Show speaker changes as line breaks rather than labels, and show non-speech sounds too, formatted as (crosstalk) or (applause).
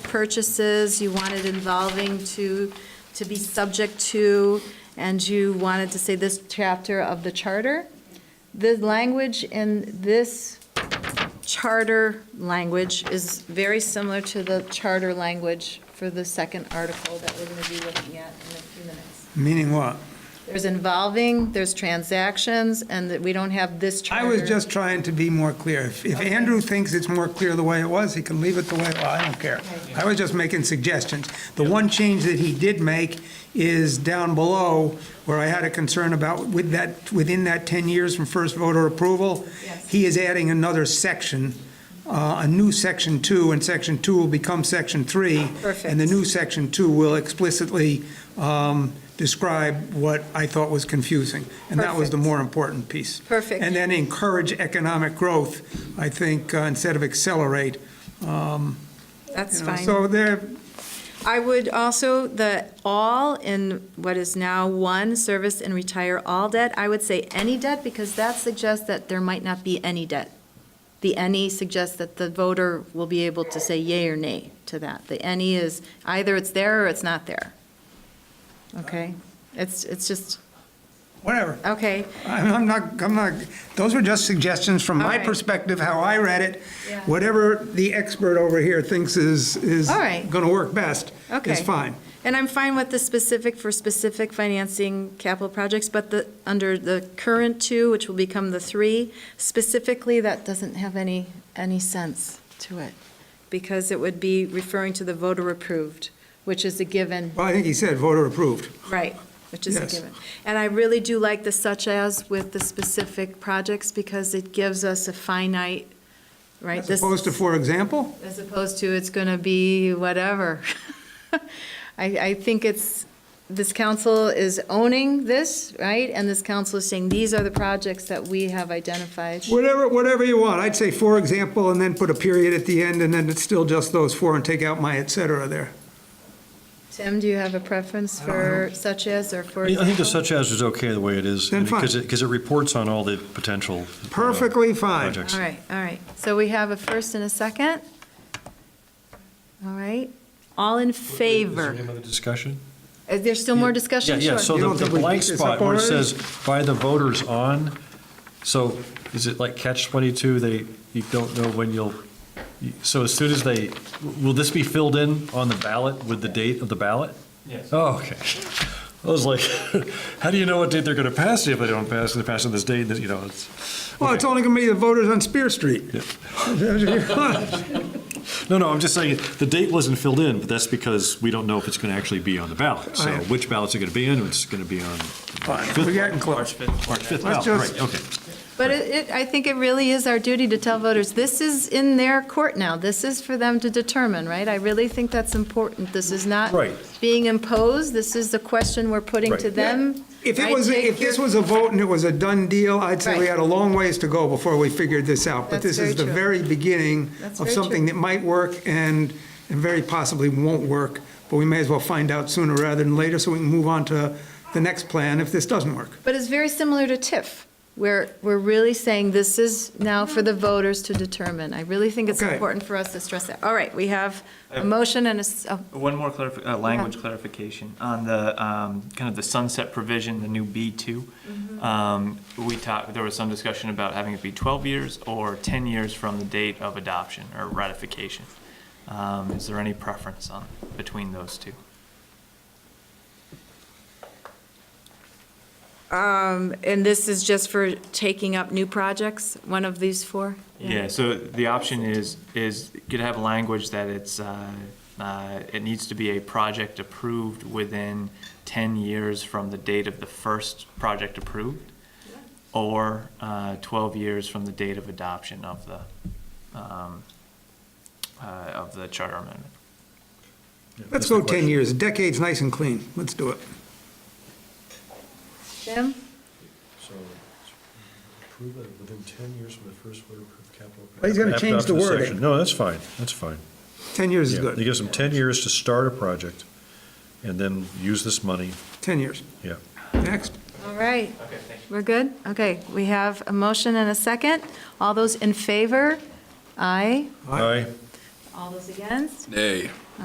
purchases, you wanted involving to, to be subject to, and you wanted to say this chapter of the charter. The language in this charter language is very similar to the charter language for the second article that we're going to be looking at in a few minutes.
Meaning what?
There's involving, there's transactions, and that we don't have this
I
charter.
was just trying to be more clear. If if
Okay.
Andrew thinks it's more clear the way it was, he can leave it the way, well, I don't care. I was just making suggestions. The one change that he did make is down below, where I had a concern about with that, within that 10 years from first voter approval.
Yes.
He is adding another section, uh, a new section two, and section two will become section three. And the
Perfect.
new section two will explicitly um, describe what I thought was confusing. And that was the
Perfect.
more important piece.
Perfect.
And then encourage economic growth, I think, uh, instead of accelerate.
That's
you know.
fine.
So there,
I would also, the all in what is now one, service and retire all debt, I would say any debt, because that suggests that there might not be any debt. The any suggests that the voter will be able to say yea or nay to that. The any is either it's there or it's not there. Okay? It's, it's just,
whatever.
okay,
I'm I'm not, I'm not, those were just suggestions from my
All right.
perspective, how I read it.
Yeah.
Whatever the expert over here thinks is, is
All right.
going to work best
okay.
is fine.
And I'm fine with the specific for specific financing capital projects, but the, under the current two, which will become the three, specifically, that doesn't have any, any sense to it, because it would be referring to the voter approved, which is a given,
Well, I think he said voter approved.
right, which is a
Yes.
given. And I really do like the such as with the specific projects, because it gives us a finite, right?
As
this-
opposed to, for example?
as opposed to it's going to be whatever. (laughs) I, I think it's, this council is owning this, right? And this council is saying, these are the projects that we have identified.
Whatever, whatever you want. I'd say for example, and then put a period at the end, and then it's still just those four, and take out my et cetera there.
Tim, do you have a preference for such as or for?
I think the
example?
such as is okay the way it is.
Then fine.
Because it, because it reports on all the potential. uh,
Perfectly fine.
Projects.
All right, all right. So we have a first and a second. All right. All in
Is
favor?
there any other discussion?
Is there still more discussion?
Yeah, yeah,
Sure.
so
You
the
don't
the
think we
blank
picked this
spot
up
where it
already?
says by the voters on, so is it like catch 22, they, you don't know when you'll, you- so as soon as they, will this be filled in on the ballot with the date of the ballot? Yes. Oh, okay. (laughs) I was like, (laughs) how do you know what date they're going to pass it if they don't pass, it? they're passing this date, that, you know, it's.
Well, it's only going to be the voters on Spear Street. (laughs)
No, no, I'm just saying, the date wasn't filled in, but that's because we don't know if it's going to actually be on the ballot. So
Right.
which ballots are going to be in, it's going to be on
Fine, we're getting close.
March 5th
Let's
ballot,
just-
right, okay.
But it, it, I think it really is our duty to tell voters, this is in their court now, this is for them to determine, right? I really think that's important, this is not
Right.
being imposed, this is the question we're putting to
Right.
them.
If it
I
was,
take
if this
your-
was a vote and it was a done deal, I'd say we
Right.
had a long ways to go before we figured this out.
That's
But this
very
is the
true.
very beginning
That's
of
very
something that might work and, and very possibly won't work. But we may as well find out sooner rather than later, so we can move on to the next plan if this doesn't work.
But it's very similar to TIF, where we're really saying this is now for the voters to determine. I really think it's
Okay.
important for us to stress that. All right, we have a motion and a, s- oh,
One more clarif, uh, language clarification on the, um, kind of the sunset provision, the new B two. Um, we talked, there was some discussion about having it be twelve years or ten years from the date of adoption or ratification. Um, is there any preference on, between those two?
um, and this is just for taking up new projects, one of these four?
Yeah, so the option is, is you to have language that it's, uh, uh, it needs to be a project approved within 10 years from the date of the first project approved, or uh, 12 years from the date of adoption of the, um, uh, of the charter amendment.
Let's
That's the
go 10
question.
years. Decade's nice and clean. Let's do it.
Jim?
So, approve it within 10 years from the first voter approved capital.
Well, he's gonna change the
Adoption
wording.
section. No, that's fine, that's fine.
10 years is
Yeah, It
good.
gives them 10 years to start a project and then use this money,
10 years.
yeah.
Next.
All right. We're good? Okay, we have a motion and a second. All those in favor? Aye.
Aye.
Aye,
All those against?
Nay.